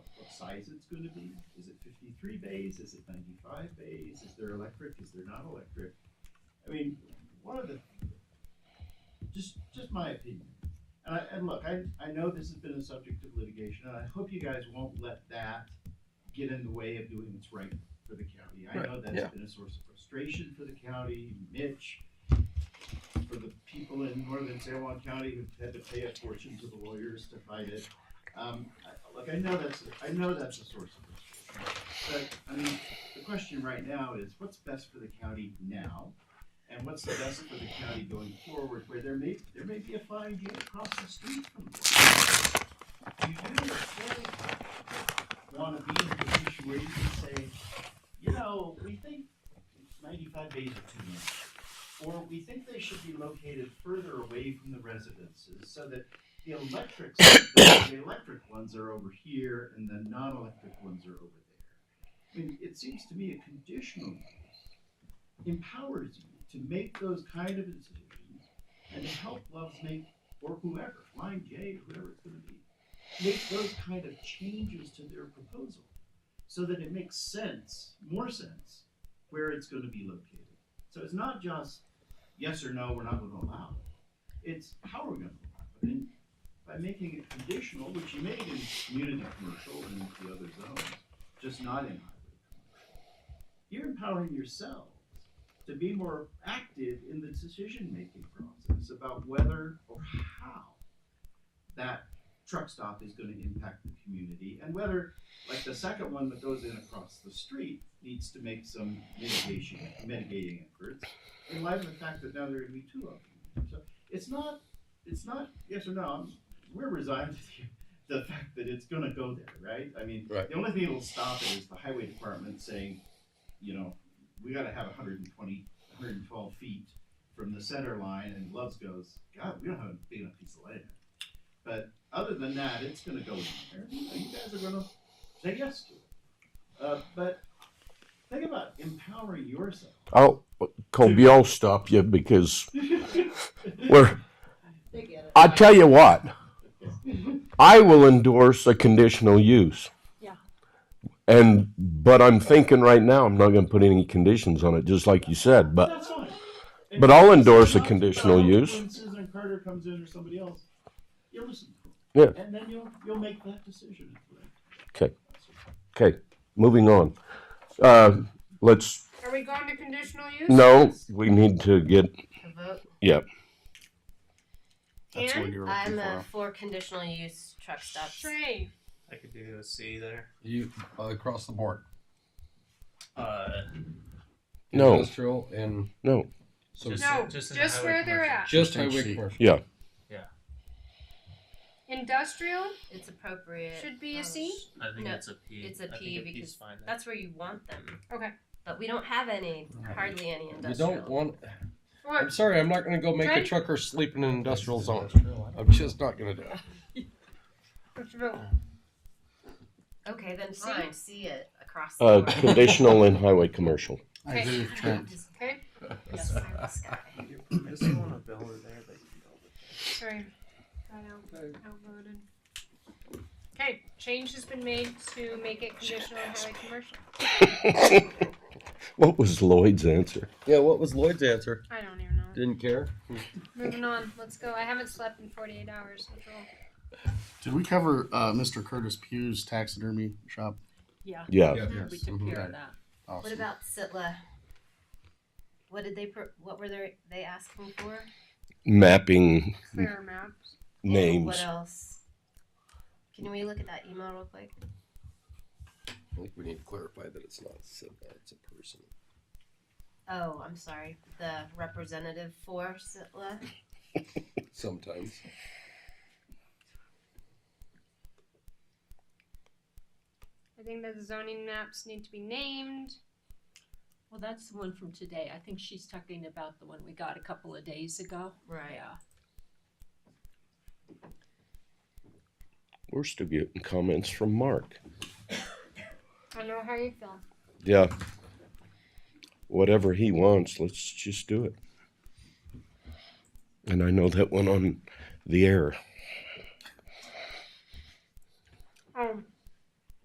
size it's gonna be? Is it fifty-three bays, is it ninety-five bays, is there electric, is there not electric? I mean, one of the, just, just my opinion. And I, and look, I, I know this has been a subject of litigation, and I hope you guys won't let that get in the way of doing what's right for the county. I Right, know that's yeah. been a source of frustration for the county, Mitch, for the people in northern San Juan County who've had to pay a fortune to the lawyers to fight it. Um, I- look, I know that's, I know that's a source of frustration. But, I mean, the question right now is what's best for the county now? And what's the best for the county going forward where there may, there may be a fine gate across the street from the You do really want to be in a position where you can say, you know, we think ninety-five days are too much or we think they should be located further away from the residences so that the electrics, the, the electric ones are over here and the non-electric ones are over there. I mean, it seems to me a conditional use empowers you to make those kind of decisions and to help Love's make, or whoever, Flying J, whoever it's gonna be, make those kind of changes to their proposal so that it makes sense, more sense, where it's gonna be located. So it's not just yes or no, we're not going to allow it. It's how we're going to allow it. And by making it conditional, which you made in community commercial and the other zones, just not in highway. commercial, You're empowering yourselves to be more active in the decision-making process about whether or how that truck stop is going to impact the community and whether, like the second one that goes in across the street, needs to make some mitigation, mitigating efforts in light of the fact that now there are going to be two of them. So it's not, it's not yes or no. I'm- We're resigned to the, the fact that it's going to go there, right? I mean, Right. the only thing that'll stop it is the highway department saying, you know, we got to have 120, 112 feet from the center line, and Loves goes, God, we don't have a big enough piece of land. But other than that, it's going to go in there. You guys are going to say yes to it. Uh, but think about empowering yourself. I'll, Colby, I'll stop you because we're, They get it. I tell you what, I will endorse a conditional use. Yeah. And, but I'm thinking right now, I'm not gonna put any conditions on it, just like you said, but That's fine. but I'll If endorse a someone else- conditional when use. Susan Carter comes in or somebody else, you'll listen to them. Yeah. And then you'll, you'll make that decision. Okay. Okay, moving on. Uh, let's, Are we going to conditional use? no, we need to get, A vote. yeah, That's what And you're I'm looking uh, for. for conditional use truck stops. Shay. I could do a C there. You uh, across the board. Uh, No. Industrial and no, so Just- No, just just, in the highway where they're commercial. at. just Same highway sheet. commercial. yeah, Industrial It's appropriate. should be a Um, C. I think No, it's a P. it's a I P think a because P's fine. there. That's where you want them. Okay. But we don't have any, hardly any You industrial. don't want. Or I'm sorry, I'm not going to go make a Trent? trucker sleep in an industrial zone. Industrial, I'm just not going to do it. let's vote. Okay, then See? fine. See it across the uh, board. conditional and highway commercial. I agree with Trent. Okay. Yes, I'm this guy. Missing one of Bella there, but you know. Sorry. Got out, outvoted. Okay. Change has been made to make it conditional and highway commercial. What was Lloyd's answer? Yeah, what was Lloyd's answer? I don't even know. Didn't care. Moving on. Let's go. I haven't slept in 48 hours. Let's roll. Did we cover uh, Mr. Curtis Pugh's taxidermy shop? Yeah. Yeah, We took Mhm. care of that. Awesome. What about Sitla? What did they? Pro- what were they? They asking for mapping Clear maps. names. What else? Can we look at that email real quick? I think we need to clarify that it's not Sitla, it's a person. Oh, I'm sorry. The representative for Sitla. Sometimes. I think that the zoning maps need to be named. Well, that's the one from today. I think she's talking about the one we got a couple of days ago. Right. Yeah. We're still getting comments from Mark. I don't know how you feel. Yeah. Whatever he wants, let's just do it. And I know that went on the air. Um,